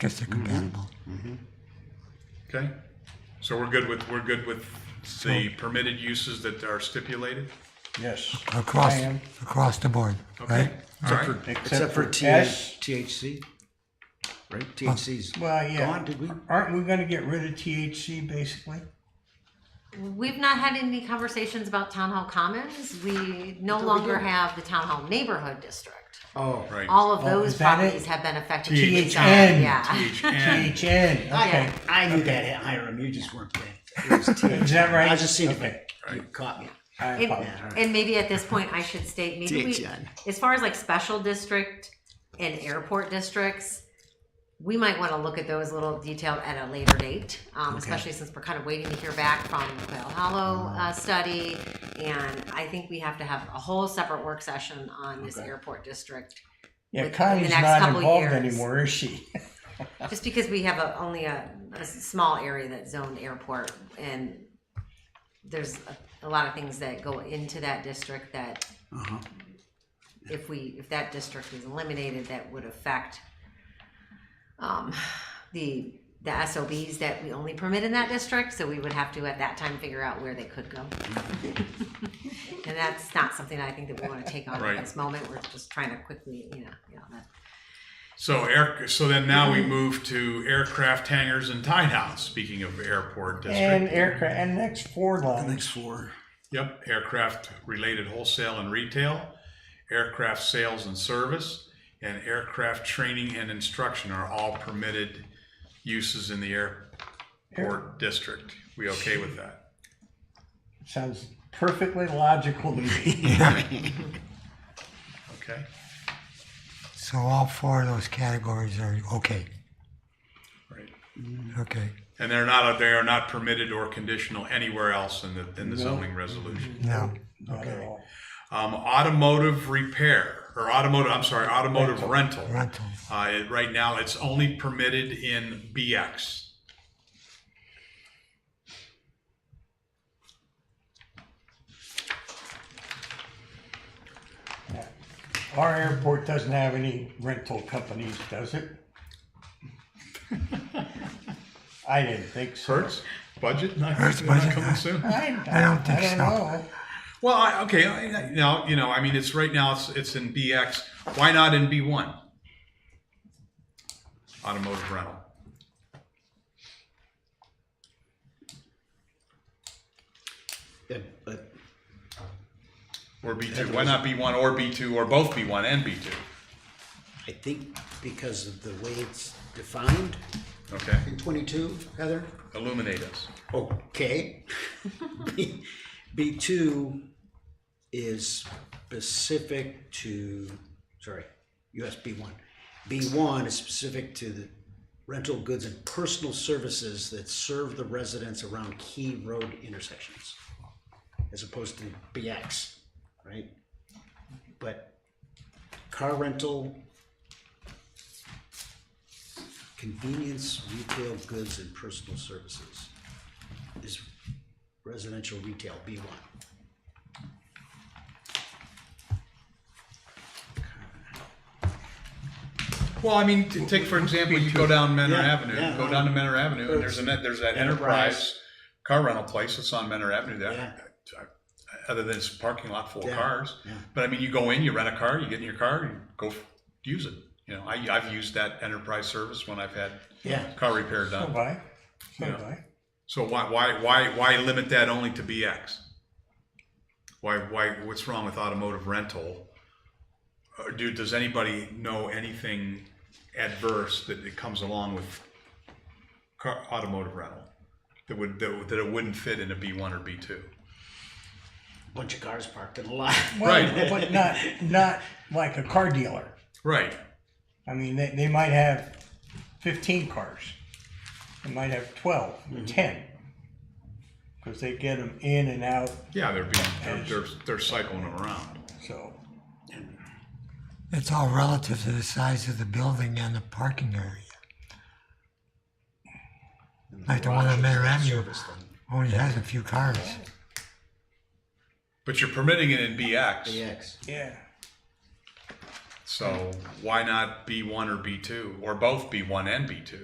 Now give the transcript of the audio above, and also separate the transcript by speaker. Speaker 1: because they're compatible.
Speaker 2: Okay, so we're good with, we're good with the permitted uses that are stipulated?
Speaker 3: Yes.
Speaker 1: Across,
Speaker 3: I am.
Speaker 1: across the board,
Speaker 2: Okay,
Speaker 1: right?
Speaker 2: all right,
Speaker 4: Except for T-
Speaker 3: S.
Speaker 4: THC, right? THC's
Speaker 3: Well, yeah.
Speaker 4: gone, did we?
Speaker 3: Aren't we gonna get rid of THC basically?
Speaker 5: We've not had any conversations about town hall commons. We no longer have the town hall neighborhood district.
Speaker 4: Oh,
Speaker 2: right.
Speaker 5: All of
Speaker 3: Oh,
Speaker 5: those
Speaker 3: is that it?
Speaker 5: properties have been affected.
Speaker 3: THN.
Speaker 5: It's, uh, Yeah.
Speaker 2: THN,
Speaker 3: THN, okay.
Speaker 5: Yeah.
Speaker 4: I knew
Speaker 3: Okay.
Speaker 4: that, Hiram, you just weren't there. It was THC.
Speaker 3: Is that right?
Speaker 4: I just seen it,
Speaker 3: Okay.
Speaker 4: but you caught me.
Speaker 3: I
Speaker 5: And,
Speaker 3: apologize.
Speaker 5: and maybe at this point, I should state, maybe we,
Speaker 4: THN.
Speaker 5: as far as like special district and airport districts, we might want to look at those a little detailed at a later date, um, especially since we're kind of waiting to hear back from Quail Hollow uh, study. And I think we have to have a whole separate work session on this airport district,
Speaker 3: Yeah,
Speaker 5: within the
Speaker 3: Connie's
Speaker 5: next
Speaker 3: not
Speaker 5: couple
Speaker 3: involved
Speaker 5: years.
Speaker 3: anymore, is she?
Speaker 5: just because we have a, only a, a small area that's zoned airport, and there's a, a lot of things that go into that district that
Speaker 4: Uh-huh.
Speaker 5: if we, if that district is eliminated, that would affect um, the, the SOBs that we only permit in that district, so we would have to at that time figure out where they could go. And that's not something I think that we wanna take on
Speaker 2: Right.
Speaker 5: at this moment, we're just trying to quickly, you know, you know, that.
Speaker 2: so air, so then now we move to aircraft hangars and tie downs, speaking of airport
Speaker 3: And
Speaker 2: district.
Speaker 3: aircraft, and next four lines.
Speaker 4: Thanks for.
Speaker 2: Yep, aircraft related wholesale and retail, aircraft sales and service, and aircraft training and instruction are all permitted uses in the airport district. We okay with that?
Speaker 3: Sounds perfectly logical to me.
Speaker 2: Okay,
Speaker 1: So all four of those categories are okay,
Speaker 2: right.
Speaker 1: okay,
Speaker 2: And they're not, they are not permitted or conditional anywhere else in the, in the zoning resolution.
Speaker 1: no,
Speaker 3: Not at all.
Speaker 2: Um, automotive repair, or automotive, I'm sorry, automotive rental.
Speaker 1: rental,
Speaker 2: Uh, it- right now, it's only permitted in BX.
Speaker 3: Our airport doesn't have any rental companies, does it? I didn't think so.
Speaker 2: Hertz, budget, not,
Speaker 1: Hertz
Speaker 2: not
Speaker 1: budget.
Speaker 2: coming soon.
Speaker 3: I,
Speaker 1: I don't think so.
Speaker 3: know.
Speaker 2: Well, I, okay, I, I- now, you know, I mean, it's right now, it's, it's in BX. Why not in B1? Automotive rental.
Speaker 4: Yeah, but
Speaker 2: Or B2. Why not B1 or B2 or both B1 and B2?
Speaker 4: I think because of the way it's defined
Speaker 2: Okay,
Speaker 4: in twenty-two, Heather?
Speaker 2: illuminate us.
Speaker 4: Okay. B- B2 is specific to, sorry, US B1. B1 is specific to the rental goods and personal services that serve the residents around key road intersections, as opposed to BX, right? But car rental, convenience, retail goods, and personal services is residential retail, B one.
Speaker 2: Well, I mean, to take for example, you go down Menor
Speaker 4: Yeah,
Speaker 2: Avenue,
Speaker 4: yeah. uh-huh.
Speaker 2: go down to Menor Avenue, and there's a net, there's that enterprise car rental place that's on Menor Avenue
Speaker 4: Yeah.
Speaker 2: there. Uh, Other than it's a parking lot full of
Speaker 4: Yeah,
Speaker 2: cars,
Speaker 4: yeah.
Speaker 2: but I mean, you go in, you rent a car, you get in your car, you go f- use it. You know, I, I've used that enterprise service when I've had
Speaker 4: Yeah.
Speaker 2: car repair
Speaker 3: So
Speaker 2: done.
Speaker 3: bye. So
Speaker 2: Yeah.
Speaker 3: bye.
Speaker 2: So why, why, why, why limit that only to BX? Why, why, what's wrong with automotive rental? Uh, Dude, does anybody know anything adverse that it comes along with car, automotive rental? That would, that would- that it wouldn't fit in a B one or B two?
Speaker 4: Bunch of cars parked in a lot.
Speaker 3: Well,
Speaker 2: Right.
Speaker 3: But not, not like a car dealer.
Speaker 2: Right,
Speaker 3: I mean, they, they might have fifteen cars. They might have twelve or ten. Cause they get them in and out,
Speaker 2: yeah, they're being, they're, they're, they're cycling them around.
Speaker 3: so.
Speaker 1: it's all relative to the size of the building and the parking area. Like the one on Manor Avenue only has a few cars,
Speaker 2: But you're permitting it in BX,
Speaker 4: BX.
Speaker 3: Yeah.
Speaker 2: So why not B1 or B2 or both B1 and B2?